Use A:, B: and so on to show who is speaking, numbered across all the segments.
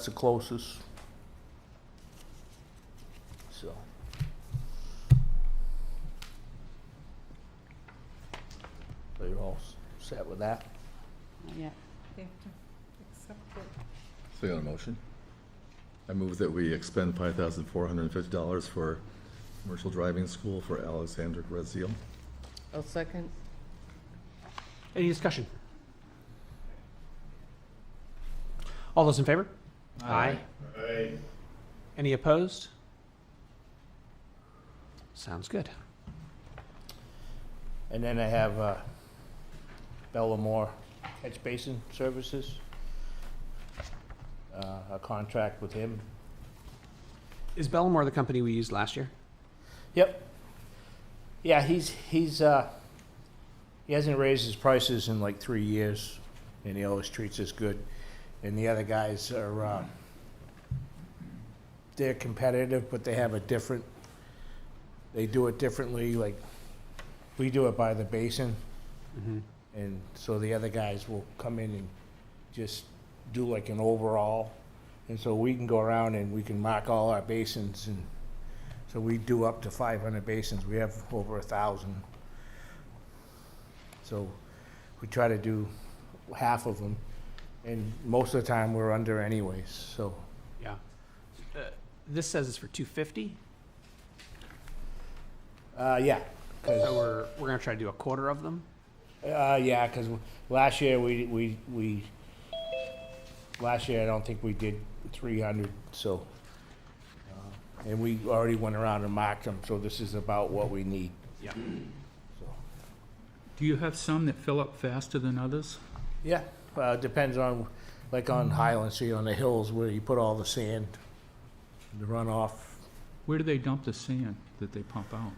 A: That's the closest. So. So you're all s- set with that?
B: Yeah,
C: They have to accept it.
D: So you got a motion? I move that we expend five thousand four hundred and fifty dollars for commercial driving school for Alexander Graziel.
B: I'll second.
E: Any discussion? All those in favor? Aye. Any opposed? Sounds good.
A: And then I have uh, Bellamore Catch Basin Services. Uh, A contract with him.
E: Is Bellamore the company we used last year?
A: Yep. Yeah, he's, he's, uh, he hasn't raised his prices in like three years, and he always treats us good. And the other guys are, uh, they're competitive, but they have a different, they do it differently, like, we do it by the basin. And so the other guys will come in and just do like an overall. And so we can go around and we can mark all our basins and so we do up to five hundred basins, we have over a thousand. So we try to do half of them, and most of the time we're under anyways, so.
E: Yeah. Uh, This says it's for two fifty,
A: Uh, yeah, 'cause-
E: so we're, we're gonna try to do a quarter of them.
A: uh, yeah, cause last year we, we, we, last year I don't think we did three hundred, so. uh, And we already went around and marked them, so this is about what we need,
E: Yeah.
A: so.
F: Do you have some that fill up faster than others?
A: Yeah, uh, depends on, like on Highland Street, on the hills where you put all the sand, the runoff,
F: Where do they dump the sand that they pump out?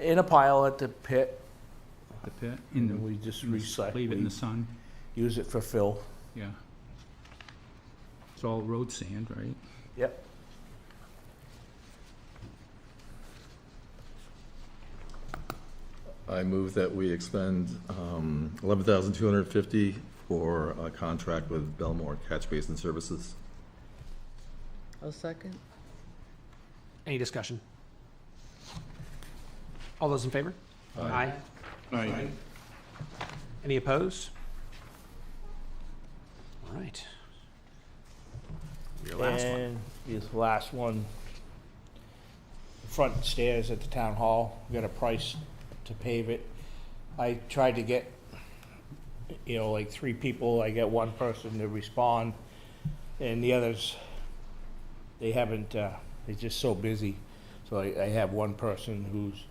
A: in a pile at the pit,
F: The pit?
A: and
F: In
A: then
F: the-
A: we just
F: in the-
A: recycle,
F: Leave it in the
A: we
F: sun?
A: use it for fill.
F: Yeah. It's all road sand, right?
A: Yep.
D: I move that we expend um, eleven thousand two hundred and fifty for a contract with Belmore Catch Basin Services.
B: I'll second.
E: Any discussion? All those in favor? Aye.
D: Aye.
E: Any opposed? All right. Your last one.
A: And this last one, the front stairs at the town hall, we got a price to pave it. I tried to get, you know, like three people, I get one person to respond, and the others, they haven't, uh, they're just so busy. So I, I have one person who's,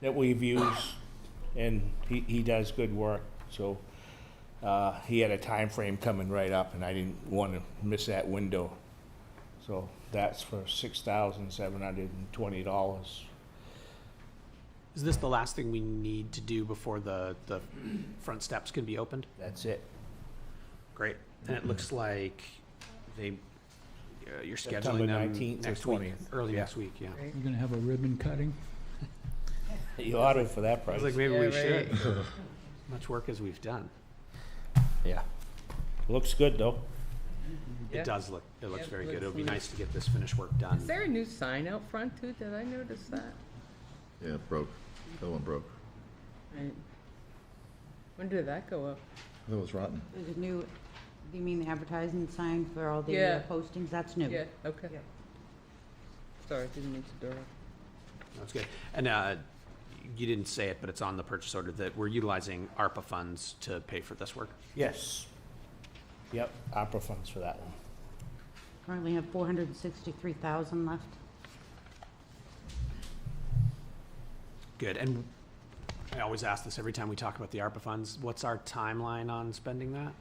A: that we've used, and he, he does good work, so uh, he had a time frame coming right up, and I didn't want to miss that window. So that's for six thousand seven hundred and twenty dollars.
E: Is this the last thing we need to do before the, the front steps can be opened?
A: That's it.
E: Great. And it looks like they, uh, you're
A: September
E: scheduling them
A: 19th or
E: next week,
A: 20th.
E: early
A: Yeah.
E: next week, yeah.
F: We're gonna have a ribbon cutting?
A: You ordered for that
E: I
A: price.
E: was like, maybe we
B: Yeah,
E: should. Much work as we've done.
A: Yeah. Looks good, though.
B: Yeah.
E: It does look, it looks
B: Yeah,
E: very good. It
B: looks
E: would be
B: nice.
E: nice to get this finished work done.
B: Is there a new sign out front too? Did I notice that?
D: Yeah, it broke. That one broke.
B: Right. When did that go up?
D: That was rotten.
G: There's a new, you mean the advertising sign for all the
B: Yeah.
G: uh, postings? That's new.
B: Yeah, okay.
G: Yeah.
B: Sorry, didn't mean to interrupt.
E: That's good. And, uh, you didn't say it, but it's on the purchase order that we're utilizing ARPA funds to pay for this work.
A: Yes. Yep, opera funds for that one.
G: Currently have 463,000 left.
E: Good. And I always ask this every time we talk about the ARPA funds, what's our timeline on spending that?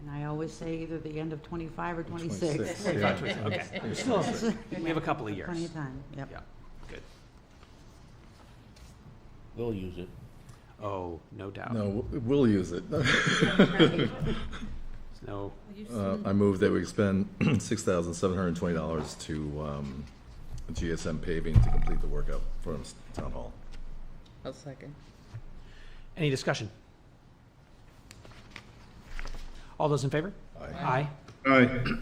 G: And I always say either the end of '25 or '26.
D: Yeah.
E: Okay, we still have, we have a couple of
G: Plenty
E: years.
G: of time, yep.
E: Yeah, good.
A: We'll use it.
E: Oh, no doubt.
D: No, w- we'll use it.
E: There's no,
C: You
D: Uh,
C: see,
D: I move that we expend six thousand seven hundred and twenty dollars to, um, GSM paving to complete the work out from Town Hall.
B: I'll second.
E: any discussion? All those in favor?
D: Aye.
E: Aye.
D: Aye.